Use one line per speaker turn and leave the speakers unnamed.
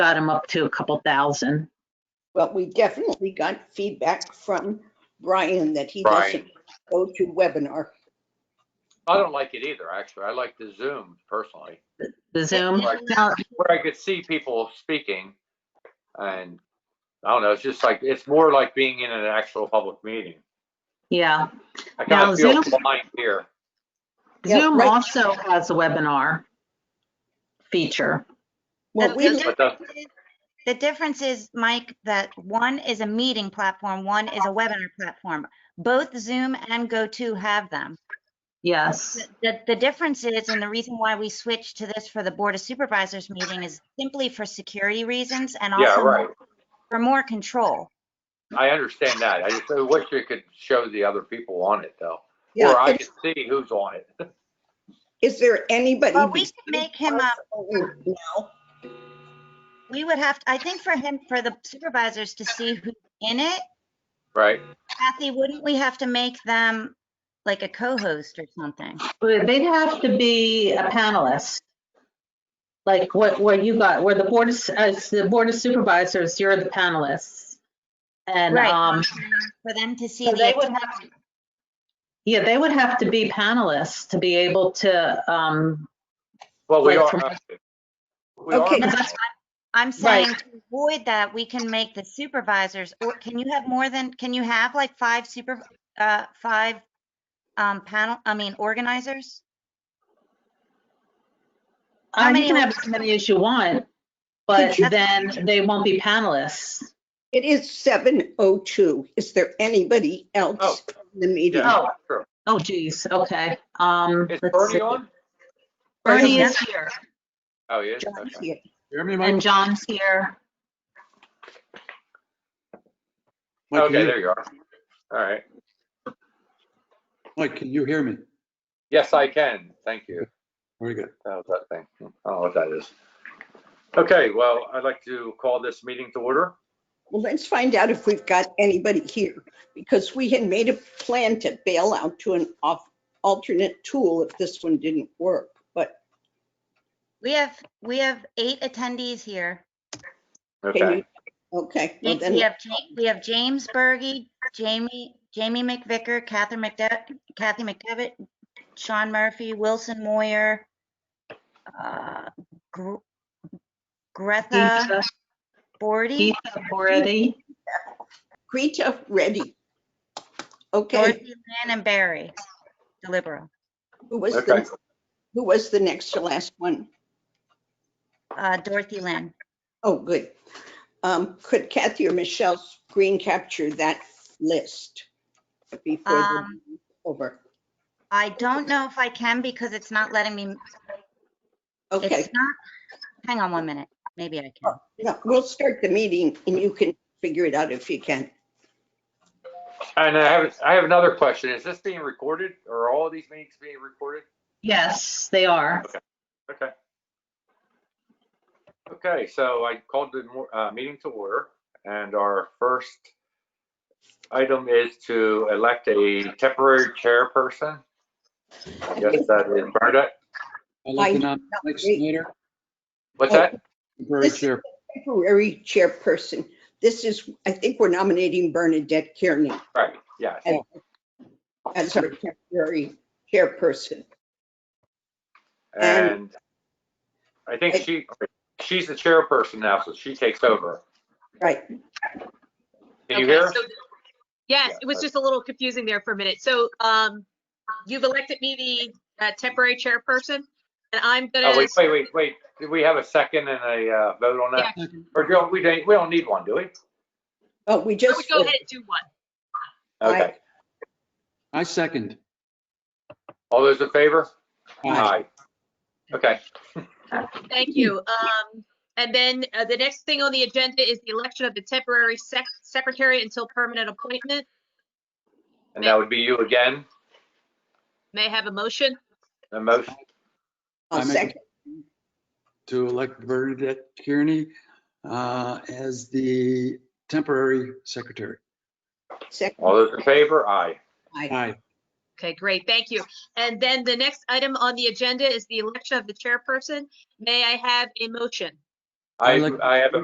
got them up to a couple thousand.
Well, we definitely got feedback from Brian that he
Brian.
doesn't go to webinar.
I don't like it either, actually. I like the Zoom personally,
The Zoom,
Right.
now,
where I could see people speaking. And I don't know, it's just like, it's more like being in an actual public meeting.
yeah.
I kind
Now,
of feel
Zoom-
blind here.
Yeah,
Zoom
right.
also has a webinar feature.
Well,
The-
we,
the
look-
But the-
difference is- The difference is, Mike, that one is a meeting platform, one is a webinar platform. Both Zoom and GoTo have them.
Yes,
The, the difference is, and the reason why we switched to this for the Board of Supervisors meeting is simply for security reasons and
Yeah,
also
right.
more- for more control.
I understand that. I just I wish you could show the other people on it though. Or
yeah,
I
is-
could see who's on it.
is there anybody?
Well, we
besides
can make him a-
Brian Now,
We would have, I think for him, for the supervisors to see who's in it,
Right?
Kathy, wouldn't we have to make them like a co-host or something?
But they'd have to be a panelist. Like what, what you got, where the board is, as the board of supervisors, you're the panelists. And,
Right.
um,
For them to see
so they
the,
would have, to- yeah, they would have to be panelists to be able to, um,
Well, we
Right,
are. uh,
from-
we are-
Okay.
I'm
Right.
saying to avoid that, we can make the supervisors, or can you have more than, can you have like five super, uh, five um, panel, I mean organizers? How
uh, you
many
can
were-
have as many as you want, but
Did you-
then they won't be panelists.
It is 7:02. Is there anybody
Oh.
else in the meeting?
Yeah,
Oh.
sure.
Oh geez, okay, um. let's
Is
see.
Bernie on?
Bernie is here
Oh, yeah.
John's here.
Hear me,
and
Mike?
John's here.
Mike,
Okay,
can
there
you-
you are. All right.
Mike, can you hear me?
Yes, I can. Thank you.
Very good.
That was that thing. I don't know what that is. Okay, well, I'd like to call this meeting to order.
Well, let's find out if we've got anybody here, because we had made a plan to bail out to an off, alternate tool if this one didn't work, but
We have, we have eight attendees here.
can
Okay,
you? Okay, well
We
then,
have, Ja- we have James Bergy, Jamie, Jamie McVicker, Catherine McDevitt, Kathy McDevitt, Sean Murphy, Wilson Moyer, uh, Gr- Greta
Geeta
Bordy,
Geeta Borety,
Greta, ready. Okay,
Dorothy Lynn, and Barry DeLibero.
who was
Okay.
the, who was the next to last one?
Uh, Dorothy Lynn.
Oh, good. Um, Could Kathy or Michelle screen capture that list before the
Um,
meeting's over?
I don't know if I can because it's not letting me,
Okay,
it's not, hang on one minute, maybe I can.
no, we'll start the meeting and you can figure it out if you can.
and I have, I have another question. Is this being recorded? Are all of these meetings being recorded?
yes, they are.
Okay. Okay, so I called the mo- uh, meeting to order, and our first item is to elect a temporary chairperson. I guess that is Bernadette.
I'd like
I-
to nominate Mike
wait.
Snyder,
What's that?
temporary
This-
chair.
temporary chairperson. This is, I think we're nominating Bernadette Kearney
Right, yeah.
as our temporary chairperson. And-
And I think she, she's the chairperson now, so she takes over.
Right,
Can you
Okay,
hear?
so- Yes,
Yeah,
it was
okay.
just a little confusing there for a minute. So um, you've elected me the uh, temporary chairperson, and I'm
Oh,
gonna,
wait, wait, wait, wait. Do we have a second and a uh, vote on that?
Yeah.
Or do we, don't- we don't need one, do we?
oh, we
I would
just,
go ahead and do one.
Okay.
I second.
All those in favor?
Aye.
Okay,
Thank you. Um, And then uh, the next thing on the agenda is the election of the temporary sec- secretary until permanent appointment.
and that would be you again,
May I have a motion?
the motion.
I'll
I make a-
Oh, second,
To elect Bernadette Kearney uh, as the temporary secretary.
second.
All those in favor? Aye.
Aye.
Aye.
Okay, great, thank you. And then the next item on the agenda is the election of the chairperson. May I have a motion?
I,
I'd like-
I have a